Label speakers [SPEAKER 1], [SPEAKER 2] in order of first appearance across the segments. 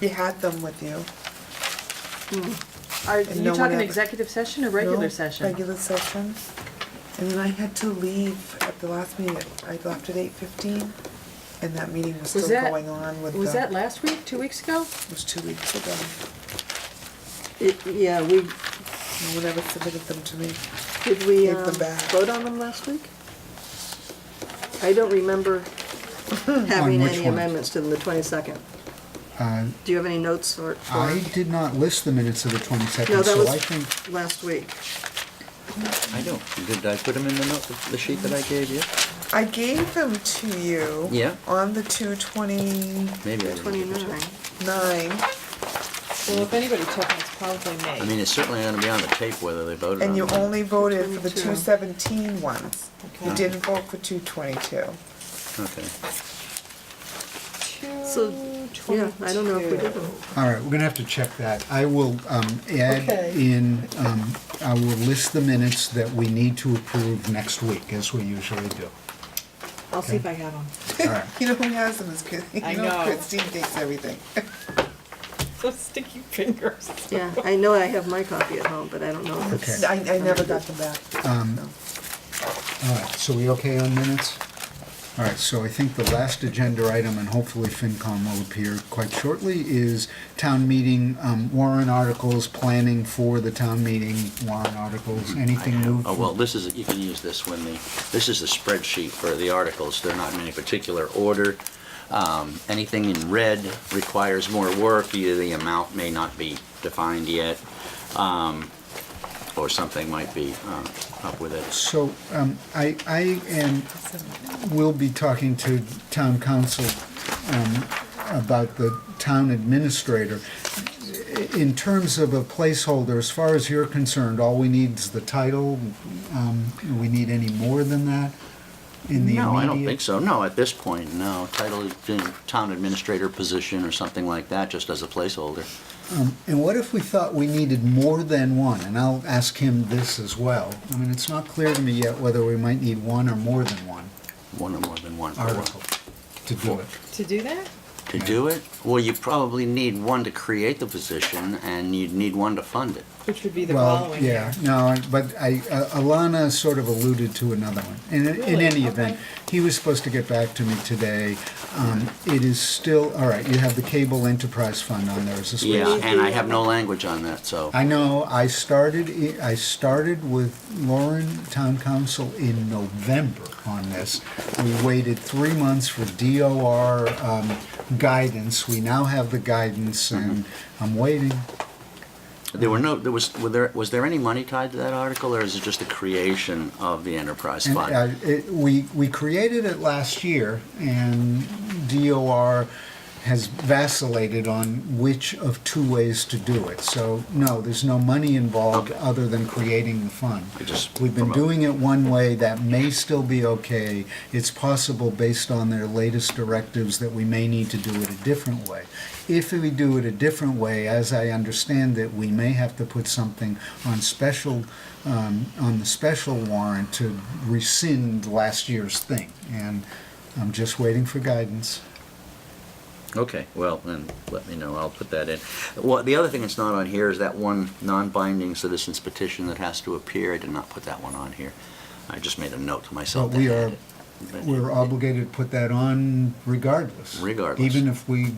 [SPEAKER 1] You had them with you.
[SPEAKER 2] Are
[SPEAKER 1] And
[SPEAKER 2] you
[SPEAKER 1] no one
[SPEAKER 2] talking
[SPEAKER 1] ever-
[SPEAKER 2] executive session or
[SPEAKER 1] No?
[SPEAKER 2] regular session?
[SPEAKER 1] Regular session. And then I had to leave at the last meeting, I left at eight fifteen, and that meeting was
[SPEAKER 2] Was
[SPEAKER 1] still
[SPEAKER 2] that-
[SPEAKER 1] going on with the.
[SPEAKER 2] Was that last week, two weeks ago?
[SPEAKER 1] It was two weeks ago.
[SPEAKER 3] It- Yeah, we,
[SPEAKER 1] No one ever submitted them to me.
[SPEAKER 3] did we
[SPEAKER 1] Take them
[SPEAKER 3] um,
[SPEAKER 1] back.
[SPEAKER 3] vote on them last week? I don't remember having
[SPEAKER 4] On which
[SPEAKER 3] any
[SPEAKER 4] one?
[SPEAKER 3] amendments to them, the 22nd.
[SPEAKER 4] Uh,
[SPEAKER 3] Do you have any notes or, for
[SPEAKER 4] I did not list the minutes of the
[SPEAKER 3] No,
[SPEAKER 4] 22nd,
[SPEAKER 3] that
[SPEAKER 4] so
[SPEAKER 3] was-
[SPEAKER 4] I think,
[SPEAKER 3] last week?
[SPEAKER 5] I don't, did I put them in the note, the sheet that I gave you?
[SPEAKER 1] I gave them to you.
[SPEAKER 5] Yeah.
[SPEAKER 1] On the two twenty-nine.
[SPEAKER 5] Maybe I didn't. give it to you.
[SPEAKER 3] 29.
[SPEAKER 2] Well, if anybody took it, it's probably
[SPEAKER 5] I
[SPEAKER 2] May.
[SPEAKER 5] mean, it's certainly gonna be on the tape whether they voted
[SPEAKER 1] And
[SPEAKER 5] on
[SPEAKER 1] you
[SPEAKER 5] it.
[SPEAKER 1] only voted for the
[SPEAKER 3] 22.
[SPEAKER 1] two seventeen ones. You
[SPEAKER 2] Okay.
[SPEAKER 1] didn't vote for two twenty-two.
[SPEAKER 5] Okay.
[SPEAKER 3] So, Yeah, I don't know if we did them.
[SPEAKER 4] all right, we're gonna have to check that. I will um, add
[SPEAKER 2] Okay.
[SPEAKER 4] in, um, I will list the minutes that we need to approve next week, as we usually do.
[SPEAKER 2] I'll see if I have them.
[SPEAKER 4] All right,
[SPEAKER 1] You know who has them is Chris, you
[SPEAKER 2] I
[SPEAKER 1] know
[SPEAKER 2] know.
[SPEAKER 1] Christine takes everything.
[SPEAKER 2] Those sticky fingers.
[SPEAKER 3] Yeah, I know I have my copy at home, but I don't know if it's...
[SPEAKER 4] Okay.
[SPEAKER 1] I, I never got them back. No.
[SPEAKER 4] all right, so we okay on minutes? All right, so I think the last agenda item, and hopefully FinCom will appear quite shortly, is town meeting um, warrant articles, planning for the town meeting warrant articles, anything new?
[SPEAKER 5] Oh, well, this is, you can use this when the, this is the spreadsheet for the articles. They're not in any particular order. Um, Anything in red requires more work, either the amount may not be defined yet, um, or something might be um, up with it.
[SPEAKER 4] So um, I, I am We'll be talking to town council um, about the town administrator. In terms of a placeholder, as far as you're concerned, all we need is the title. Um, Do we need any more than that in the immediate?
[SPEAKER 5] No, I don't think so. No, at this point, no. Title, is in town administrator position or something like that, just as a placeholder.
[SPEAKER 4] Um, And what if we thought we needed more than one? And I'll ask him this as well. I mean, it's not clear to me yet whether we might need one or more than one
[SPEAKER 5] One or more than one.
[SPEAKER 4] article to do it.
[SPEAKER 2] To do that?
[SPEAKER 5] To do it? Well, you probably need one to create the position, and you'd need one to fund it.
[SPEAKER 2] Which would be the
[SPEAKER 4] well,
[SPEAKER 2] following
[SPEAKER 4] yeah,
[SPEAKER 2] year.
[SPEAKER 4] no, but I, uh, Alana sort of alluded to another one. In, in
[SPEAKER 2] Really?
[SPEAKER 4] any event, he was supposed to get back to me today. Um, it is still all right. You have the cable enterprise fund on there as a special.
[SPEAKER 5] Yeah, and I have no language on that, so.
[SPEAKER 4] I know. I started. i- I started with Lauren Town Council in November on this. We waited three months for DOR um, guidance. We now have the guidance, and I'm waiting.
[SPEAKER 5] There were no, there was, were there, was there any money tied to that article, or is it just the creation of the enterprise
[SPEAKER 4] And, uh,
[SPEAKER 5] fund?
[SPEAKER 4] it- We, we created it last year, and DOR has vacillated on which of two ways to do it. So, no, there's no money involved
[SPEAKER 5] Okay.
[SPEAKER 4] other than creating the fund.
[SPEAKER 5] I just-
[SPEAKER 4] We've been
[SPEAKER 5] from a-
[SPEAKER 4] doing it one way, that may still be okay. It's possible, based on their latest directives, that we may need to do it a different way. If we do it a different way, as I understand it, we may have to put something on special, um, on the special warrant to rescind last year's thing. And I'm just waiting for guidance.
[SPEAKER 5] Okay, well, then, let me know, I'll put that in. Well, the other thing that's not on here is that one non-binding citizens petition that has to appear, I did not put that one on here. I just made a note to myself.
[SPEAKER 4] But we
[SPEAKER 5] to
[SPEAKER 4] are-
[SPEAKER 5] add it. But-
[SPEAKER 4] We're obligated to put that on regardless.
[SPEAKER 5] Regardless.
[SPEAKER 4] Even if we,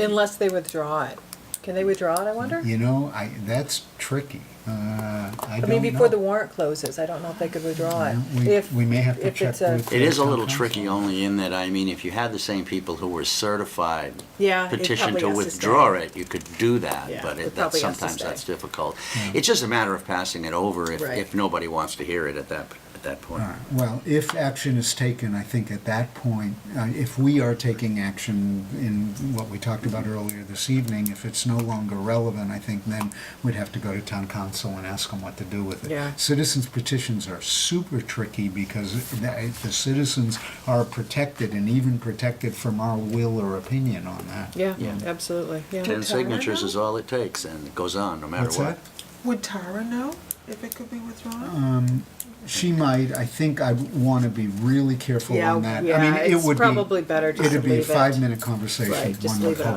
[SPEAKER 2] Unless they withdraw it. Can they withdraw it, I wonder?
[SPEAKER 4] you know, I, that's tricky. Uh, I
[SPEAKER 2] I
[SPEAKER 4] don't
[SPEAKER 2] mean, before the
[SPEAKER 4] know.
[SPEAKER 2] warrant closes, I don't know if they could withdraw it.
[SPEAKER 4] We-
[SPEAKER 2] If-
[SPEAKER 4] we may have to
[SPEAKER 2] if
[SPEAKER 4] check
[SPEAKER 2] it's a-
[SPEAKER 4] with-
[SPEAKER 5] It is a
[SPEAKER 4] Town
[SPEAKER 5] little
[SPEAKER 4] council.
[SPEAKER 5] tricky only in that, I mean, if you had the same people who were certified
[SPEAKER 2] Yeah, Uh, it
[SPEAKER 5] petition
[SPEAKER 2] probably
[SPEAKER 5] to
[SPEAKER 2] has stay.
[SPEAKER 5] withdraw it, you could do that,
[SPEAKER 2] Yeah,
[SPEAKER 5] but
[SPEAKER 2] it
[SPEAKER 5] it-
[SPEAKER 2] probably has to
[SPEAKER 5] that's, sometimes
[SPEAKER 2] stay.
[SPEAKER 5] that's difficult. It's just a matter of passing it over if,
[SPEAKER 2] Right.
[SPEAKER 5] if nobody wants to hear it at that, at that point.
[SPEAKER 4] All right. Well, if action is taken, I think at that point, uh, if we are taking action in what we talked about earlier this evening, if it's no longer relevant, I think then we'd have to go to town council and ask them what to do with it.
[SPEAKER 2] Yeah.
[SPEAKER 4] Citizens petitions are super tricky because the the citizens are protected and even protected from our will or opinion on that.
[SPEAKER 2] Yeah,
[SPEAKER 5] Yeah.
[SPEAKER 2] absolutely, yeah.
[SPEAKER 5] Ten signatures is all it takes, and it goes on, no matter
[SPEAKER 4] What's
[SPEAKER 5] what.
[SPEAKER 4] that?
[SPEAKER 1] Would Tara know if it could be withdrawn?
[SPEAKER 4] She might. I think I want to be really careful
[SPEAKER 2] Yeah,
[SPEAKER 4] on that. I mean,
[SPEAKER 2] yeah,
[SPEAKER 4] it
[SPEAKER 2] it's
[SPEAKER 4] would be-
[SPEAKER 2] probably better just to
[SPEAKER 4] It'd be a
[SPEAKER 2] leave it.
[SPEAKER 4] five-minute conversation,
[SPEAKER 2] Right, just
[SPEAKER 4] one
[SPEAKER 2] leave
[SPEAKER 4] would
[SPEAKER 2] it
[SPEAKER 4] hope.